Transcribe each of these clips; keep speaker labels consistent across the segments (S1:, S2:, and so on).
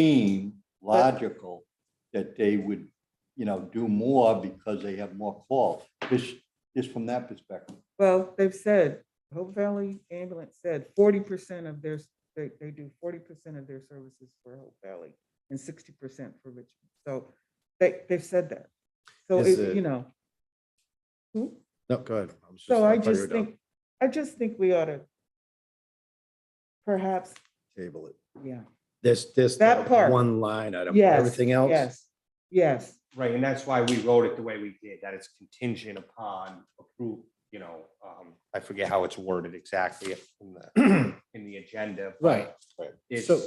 S1: seem logical that they would, you know, do more because they have more calls. This, this from that perspective.
S2: Well, they've said, Hope Valley Ambulance said forty percent of their, they, they do forty percent of their services for Hope Valley and sixty percent for Richmond. So they, they've said that. So,
S3: Is
S2: it-
S3: it-
S2: you know. Hmm?
S3: No, go ahead. was
S2: So I
S3: thought you were
S2: just
S3: done.
S2: think, I just think we ought to perhaps,
S3: Table it.
S2: yeah,
S3: This, this.
S2: That part.
S3: One line item.
S2: Yes,
S3: Everything else.
S2: yes, yes,
S4: Right, and that's why we wrote it the way we did, that it's contingent upon approve, you know, um, I forget how it's worded exactly in the, in the agenda. but
S3: Right.
S4: It's,
S3: So-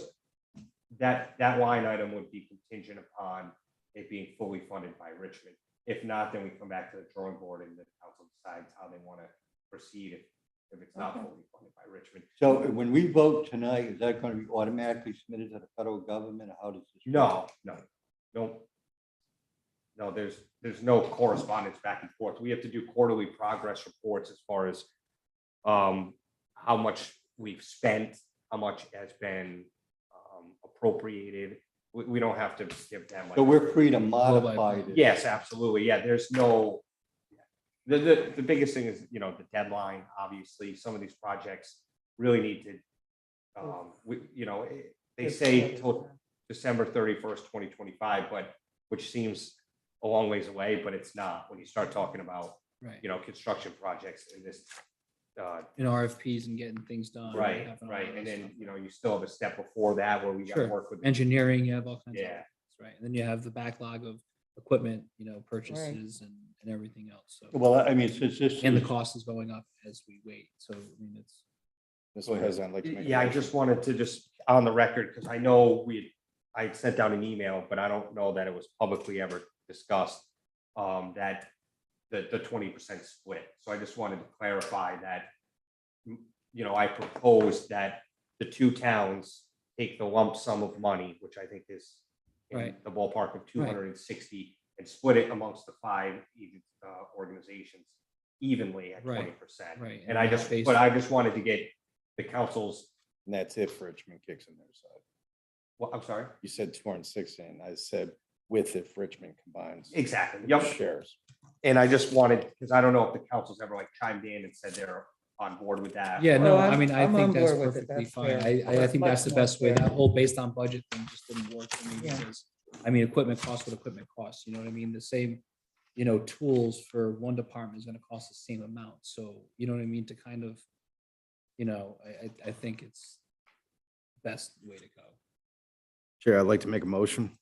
S4: that, that line item would be contingent upon it being fully funded by Richmond. If not, then we come back to the drawing board and the council decides how they want to proceed if, if it's not
S2: Okay.
S4: fully funded by Richmond.
S1: So when we vote tonight, is that going to be automatically submitted to the federal government? or How does this? work?
S4: No, no, no. No, there's, there's no correspondence back and forth. We have to do quarterly progress reports as far as um, how much we've spent, how much has been um, appropriated. We, we don't have to give them like.
S1: So we're free to modify this.
S4: Yes, absolutely. Yeah, there's no, the, the, the biggest thing is, you know, the deadline, obviously, some of these projects really need to, um, we, you know, eh, they say till December thirty-first, twenty twenty-five, but, which seems a long ways away, but it's not, when you start talking about,
S5: Right,
S4: you know, construction projects in this, uh,
S5: and RFPs and getting things done. and
S4: right,
S5: having all
S4: right,
S5: that
S4: and then,
S5: stuff.
S4: you know, you still have a step before that where we gotta
S5: Sure.
S4: work with.
S5: Engineering, you have all kinds of,
S4: Yeah.
S5: things, right, and then you have the backlog of equipment, you know, purchases and, and everything else, so.
S1: Well, I mean, since this.
S5: And the
S1: is-
S5: cost is going up as we wait, so, I mean, it's.
S3: This one has, I'd like to make. a
S4: Yeah, I
S3: motion.
S4: just wanted to just on the record, because I know we, I had sent out an email, but I don't know that it was publicly ever discussed. Um, that the, the twenty percent split. So I just wanted to clarify that. You know, I proposed that the two towns take the lump sum of money, which I think is in
S5: Right.
S4: the ballpark of two
S5: Right.
S4: hundred and sixty and split it amongst the five uh, organizations evenly at
S5: Right,
S4: twenty percent.
S5: right,
S4: And
S5: and
S4: I
S5: that's
S4: just,
S5: based-
S4: but I just wanted to get the council's
S6: And that's if Richmond kicks in their side.
S4: Well, I'm sorry.
S6: You said two hundred and sixty, and I said with if Richmond combines.
S4: Exactly. Yep.
S6: Shares.
S4: And I just wanted, because I don't know if the council's ever like chimed in and said they're on board with that.
S5: Yeah, no,
S2: Well,
S5: I
S2: I'm-
S5: mean, I
S2: I'm on
S5: think that's
S2: board with it.
S5: perfectly
S2: That's
S5: fine. I,
S2: fair.
S5: I, I think
S2: That's
S5: that's the
S2: much
S5: best way.
S2: more fair.
S5: That whole based on budget thing just didn't work for me
S2: Yeah.
S5: because, I mean, equipment costs what equipment costs, you know what I mean? The same, you know, tools for one department is gonna cost the same amount. So, you know what I mean, to kind of, you know, I, I, I think it's best way to go.
S3: Chair, I'd like to make a motion.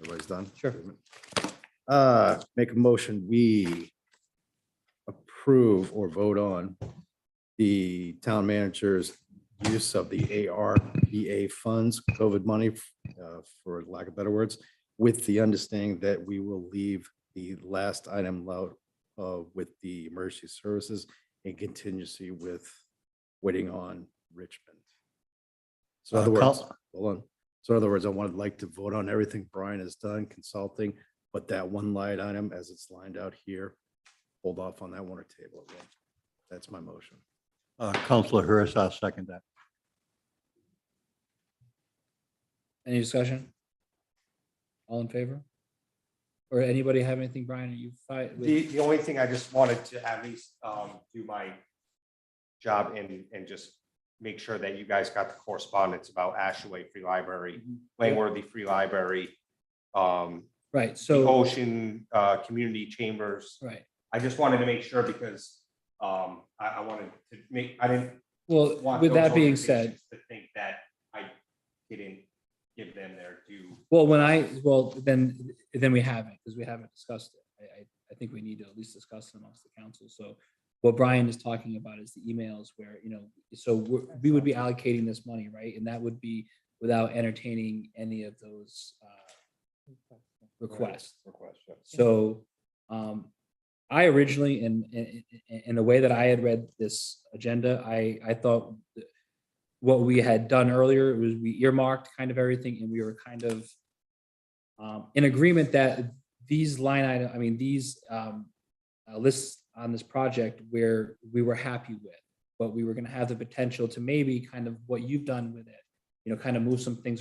S3: Everybody's done?
S5: Sure.
S3: Uh, make a motion, we approve or vote on the town manager's use of the ARPA funds, COVID money, uh, for lack of better words, with the understanding that we will leave the last item loud uh, with the emergency services and contingency with waiting on Richmond. So in other
S1: Uh, Col-
S3: words, hold on. So in other words, I would like to vote on everything Brian has done consulting, but that one light item as it's lined out here, hold off on that one or table it. That's my motion.
S1: Uh, Counselor Hurst, I'll second that.
S5: Any discussion? All in favor? Or anybody have anything, Brian, you fight with?
S4: The, the only thing I just wanted to at least um, do my job and, and just make sure that you guys got the correspondence about Ashaway Free Library,
S5: Mm-hmm.
S4: Langworthy Free Library, um,
S5: Right,
S4: the
S5: so,
S4: Ocean, uh, Community Chambers.
S5: right.
S4: I just wanted to make sure because, um, I, I wanted to make, I didn't
S5: Well,
S4: want
S5: with
S4: those
S5: that being said,
S4: organizations To think that I didn't give them their due.
S5: Well, when I, well, then, then we haven't, because we haven't discussed it. I, I, I think we need to at least discuss it amongst the council. So what Brian is talking about is the emails where, you know, so we're- we would be allocating this money, right? And that would be without entertaining any of those uh, requests.
S6: Request, yes.
S5: So um, I originally, in, in, in- in the way that I had read this agenda, I, I thought that what we had done earlier was we earmarked kind of everything and we were kind of um, in agreement that these line item, I mean, these um, uh, lists on this project where we were happy with, but we were gonna have the potential to maybe kind of what you've done with it, you know, kind of move some things